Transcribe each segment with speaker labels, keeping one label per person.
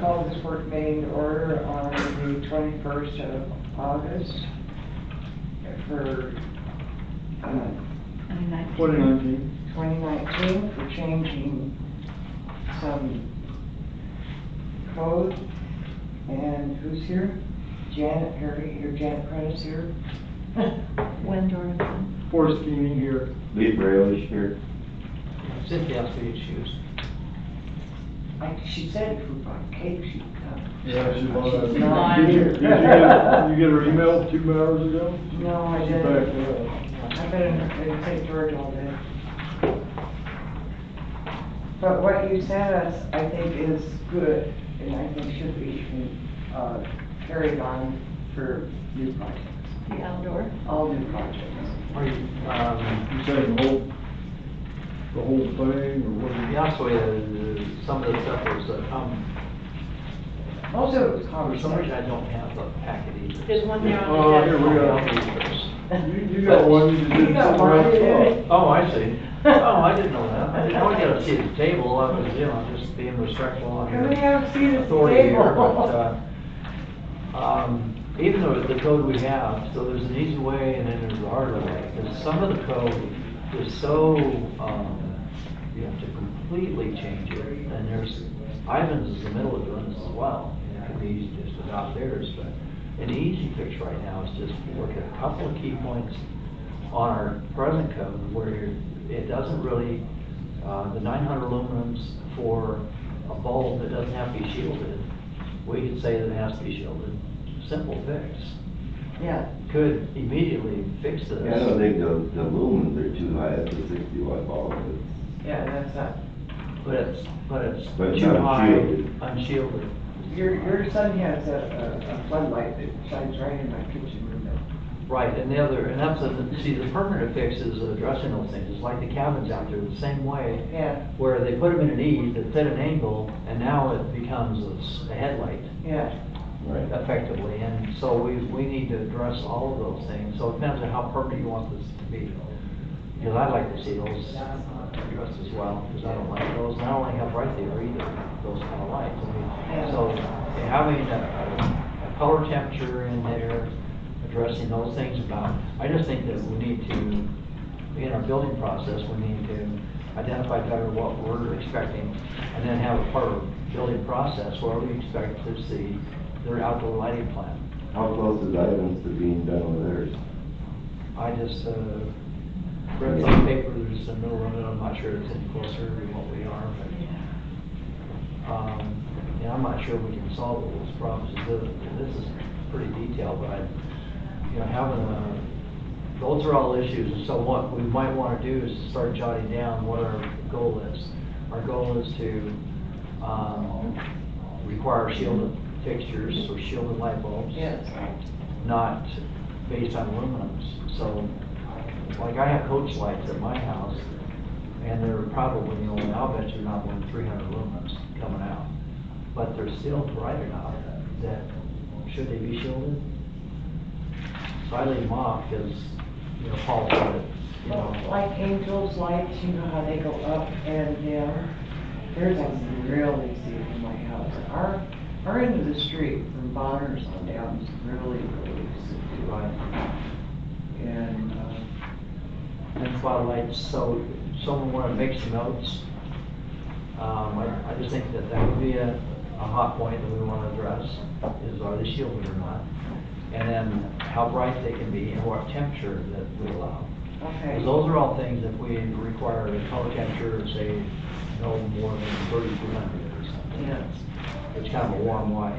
Speaker 1: call this work meeting to order on the 21st of August for uh,
Speaker 2: Twenty nineteen.
Speaker 1: 2019 for changing some code. And who's here? Janet, Harry, here, Janet Prentice here.
Speaker 3: Wendorf.
Speaker 2: Forrest Keening here.
Speaker 4: Lee Braille is here.
Speaker 5: Cynthia, I'll see your shoes.
Speaker 1: Like she said, if we bought cake, she'd come.
Speaker 2: Yeah, she was.
Speaker 1: She's not
Speaker 2: Did you-
Speaker 1: here.
Speaker 2: Did you get, you get her email two hours ago?
Speaker 1: No, I
Speaker 2: She's
Speaker 1: didn't.
Speaker 2: back uh, now.
Speaker 1: I better not take George all day. But what you sent us, I think is good, and I think should be, uh, carried on for new projects,
Speaker 3: The outdoor.
Speaker 1: all new projects.
Speaker 5: Are you, um,
Speaker 2: You saying the whole, the whole thing, or what?
Speaker 5: the also, uh, some of the stuff was, uh, um,
Speaker 1: Most of it was
Speaker 5: for some reason
Speaker 1: conversation.
Speaker 5: I don't have the packet either.
Speaker 6: Oh, There's one there on
Speaker 2: Oh, here we
Speaker 5: I'll
Speaker 2: go.
Speaker 5: read first.
Speaker 2: You, you got one, you
Speaker 1: You
Speaker 2: did
Speaker 1: got
Speaker 2: something
Speaker 1: one, you
Speaker 2: else.
Speaker 1: did.
Speaker 5: Oh, I see. Oh, I didn't know that. I didn't know I got a seat at the table. I was, you know, just being respectful on your
Speaker 1: We haven't seen this
Speaker 5: authority here.
Speaker 1: table.
Speaker 5: But, uh, um, even though the code we have, so there's an easy way and then there's a harder way. Because some of the code is so, um, you have to completely change it. And there's, Ivan's is in the middle of doing this as well. And it could be easy to just adopt theirs, but an easy fix right now is just look at a couple of key points on our present code where it doesn't really, uh, the 900 lumens for a bulb that doesn't have to be shielded, we could say that it has to be shielded. Simple fix.
Speaker 1: Yeah,
Speaker 5: Could immediately fix this.
Speaker 4: Yeah, I don't think the, the lumens are too high, that's a sixty watt bulb. It's-
Speaker 1: yeah, that's uh, not,
Speaker 5: But it's, but it's
Speaker 4: But it's
Speaker 5: too high,
Speaker 4: unshielded.
Speaker 5: unshielded.
Speaker 1: your, your son has a, a- a floodlight that shines right in my kitchen window.
Speaker 5: Right, and the other, and that's, a- see, the permanent fix is addressing those things. It's like the cabins out there, the same way.
Speaker 1: Yeah,
Speaker 5: where they put them in an E that's at an angle, and now it becomes a s- a headlight
Speaker 1: yeah,
Speaker 4: Right.
Speaker 5: effectively, and so we, we need to address all of those things, so it depends on how permanent you want this to be. Because I'd like to see those addressed as well, because I don't like those, and I don't like how bright they are either, those kind of lights. I mean, So having a, a color temperature in there, addressing those things about, I just think that we need to in our building process, we need to identify better what we're expecting, and then have a part of the building process where we expect to see their outdoor lighting plan.
Speaker 4: How close is Ivan's to being done with theirs?
Speaker 5: I just, uh, read some paper, there's a middle of it, I'm not sure it's any closer to what we are, but, um, and I'm not sure we can solve all those problems, This- this is pretty detailed, but I, you know, having a, those are all issues, and so what we might wanna do is start jotting down what our goal is. Our goal is to, um, require shielded fixtures or shielded light bulbs
Speaker 1: yes.
Speaker 5: not based on aluminums. So, like I have coach lights at my house, and they're probably, you know, I'll bet you're not more than three hundred lumens coming out. But they're still bright enough that, should they be shielded? So I leave them off, because, you know, Paul said it, you know.
Speaker 1: Like angels lights, you know how they go up and down? There's a real easy in my house. Our, our end of the street from Bonner's on down is really, really easy.
Speaker 5: Right.
Speaker 1: And, uh,
Speaker 5: And spotlights, so someone wanna make some notes? Um, I, I just think that that would be a, a hot point that we wanna address, is are they shielded or not? And then how bright they can be and what temperature that we allow. Because
Speaker 1: okay,
Speaker 5: those are all things that we require a color temperature of say no more than thirty-two hundred or something.
Speaker 1: Yeah.
Speaker 5: It's kind of a warm white,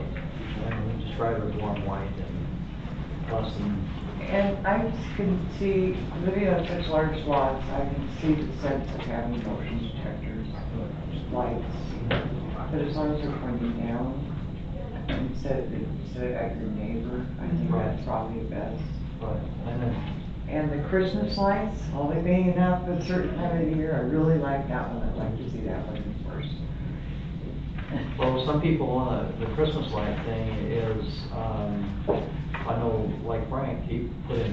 Speaker 5: and we describe it as warm white and less than
Speaker 1: and I just can see, living on such large lots, I can see the sense of having motion detectors, lights. But as long as they're pointing down, instead of, instead of at your neighbor, I think that's probably best.
Speaker 5: bright. And then
Speaker 1: And the Christmas lights, only being up at a certain time of the year, I really like that one, I'd like to see that one first.
Speaker 5: Well, some people want the Christmas light thing is, um, I know, like Frank, he put in